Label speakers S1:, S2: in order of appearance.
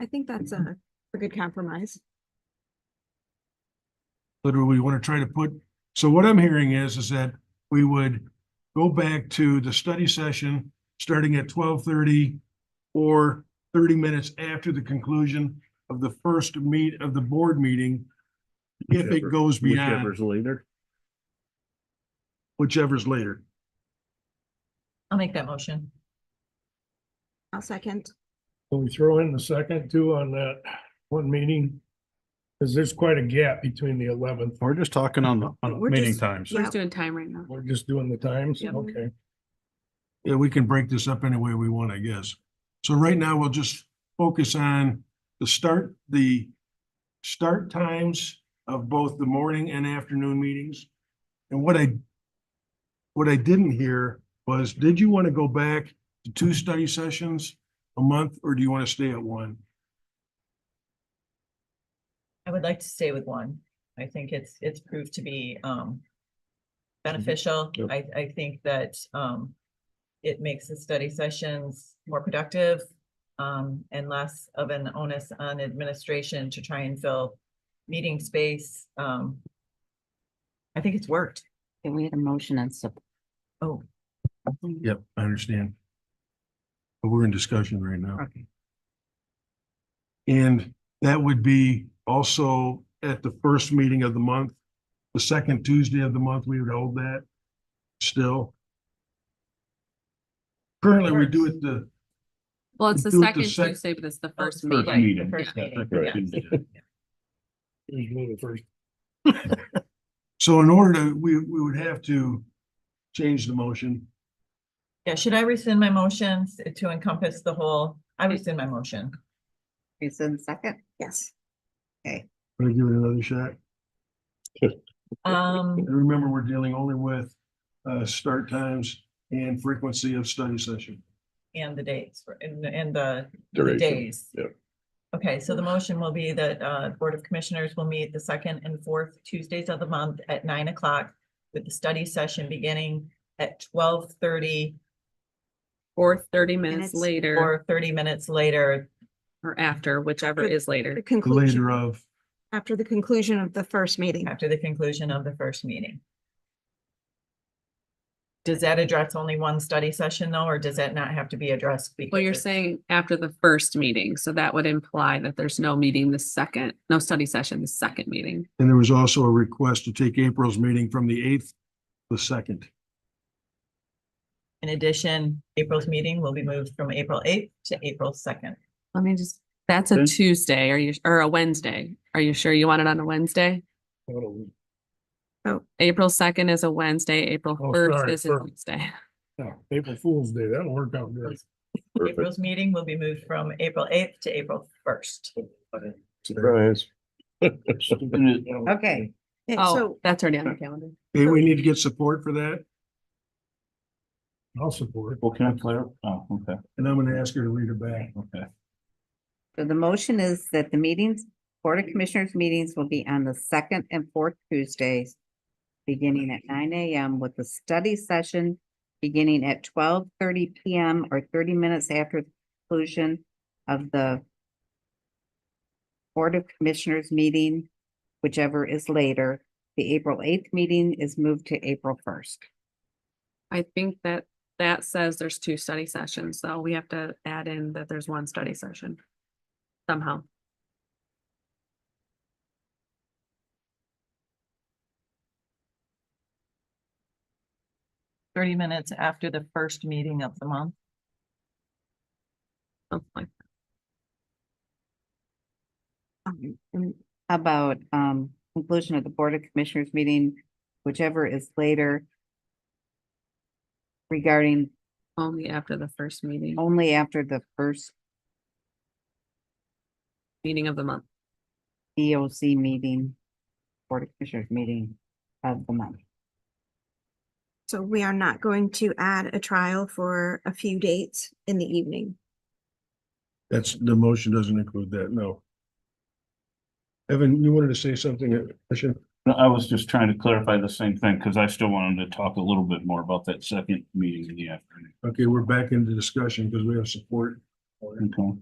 S1: I think that's a, a good compromise.
S2: Literally, we want to try to put, so what I'm hearing is, is that we would go back to the study session, starting at twelve thirty or thirty minutes after the conclusion of the first meet of the board meeting. If it
S3: Whichever-
S2: goes beyond
S3: Whichever's later.
S2: whichever's later.
S4: I'll make that motion.
S1: I'll second.
S5: Can we throw in the second too on that one meeting? Cause there's quite a gap between the eleventh.
S6: We're just talking on the, on the
S1: We're
S6: meeting
S1: just-
S6: times.
S1: Yeah.
S7: We're just doing time right now.
S5: We're just doing the times,
S4: Yep.
S5: okay.
S2: Yeah, we can break this up any way we want, I guess. So right now, we'll just focus on the start, the start times of both the morning and afternoon meetings. And what I, what I didn't hear was, did you want to go back to two study sessions a month, or do you want to stay at one?
S4: I would like to stay with one. I think it's, it's proved to be, um, beneficial.
S3: Mm-hmm. Yep.
S4: I, I think that, um, it makes the study sessions more productive, um, and less of an onus on administration to try and fill meeting space. Um, I think it's worked.
S8: Okay, we had a motion and support.
S4: Oh,
S2: Yep, I understand. But we're in discussion right now.
S8: Okay.
S2: And that would be also at the first meeting of the month, the second Tuesday of the month, we would hold that still. Currently, we do it the,
S7: Well, it's the
S2: Do it the
S7: second
S2: sec-
S7: Tuesday, but it's the first
S4: first
S7: meeting.
S4: Right,
S3: meeting.
S4: meeting. the first
S3: Yeah,
S4: meeting,
S3: right.
S5: Usually the first.
S2: so in order to, we, we would have to change the motion.
S4: yeah, should I rescind my motions to encompass the whole? I rescind my motion.
S8: Okay, so the second,
S1: Yes.
S2: Gonna give it another shot.
S4: Um,
S2: And remember, we're dealing only with, uh, start times and frequency of study session.
S4: and the dates for- and, and the the
S3: Duration.
S4: days.
S3: yep.
S4: Okay, so the motion will be that uh Board of Commissioners will meet the second and fourth Tuesdays of the month at nine o'clock with the study session beginning at twelve thirty
S7: Or thirty minutes
S1: Minutes
S7: later
S4: or thirty minutes later.
S7: or after, whichever
S1: Good.
S7: is
S1: The
S7: later.
S1: conclusion,
S2: Later of,
S1: after the conclusion of the first meeting.
S4: After the conclusion of the first meeting. Does that address only one study session though, or does that not have to be addressed?
S7: Well,
S4: because
S7: you're
S4: it's-
S7: saying after the first meeting, so that would imply that there's no meeting the second, no study session, the second meeting.
S2: and there was also a request to take April's meeting from the eighth, to the second.
S4: In addition, April's meeting will be moved from April eighth to April second.
S7: Let me just, that's a
S3: Okay.
S7: Tuesday, are you, or a Wednesday? Are you sure you want it on a Wednesday?
S5: Oh,
S7: April second is a Wednesday, April
S5: Oh,
S7: first
S5: sorry,
S7: is a
S5: first.
S7: Wednesday.
S5: no, April Fool's Day, that'll work out good.
S3: Perfect.
S4: April's meeting will be moved from April eighth to April first.
S3: Surprise.
S8: okay,
S1: Okay,
S7: Oh,
S1: so
S7: that's already on the calendar.
S2: Hey, we need to get support for that,
S5: I'll support.
S6: Well, can I clarify? Oh, okay,
S2: and I'm gonna ask her to read it back.
S6: okay.
S8: so the motion is that the meetings, Board of Commissioners meetings will be on the second and fourth Tuesdays. Beginning at nine AM with the study session beginning at twelve thirty PM or thirty minutes after the conclusion of the. Board of Commissioners meeting, whichever is later. The April eighth meeting is moved to April first.
S7: I think that that says there's two study sessions, so we have to add in that there's one study session. Somehow.
S4: thirty minutes after the first meeting of the month.
S7: something like
S1: um, and
S8: How About um conclusion of the Board of Commissioners meeting, whichever is later. Regarding
S7: Only after the first meeting,
S8: only after the first
S7: meeting of the month.
S8: EOC meeting. Board of Commissioners meeting of the month.
S1: so we are not going to add a trial for a few dates in the evening.
S2: That's, the motion doesn't include that, no. Evan, you wanted to say something, I should,
S6: No, I was just trying to clarify the same thing, because I still wanted to talk a little bit more about that second meeting in the afternoon.
S2: okay, we're back into discussion because we have support.
S6: Okay.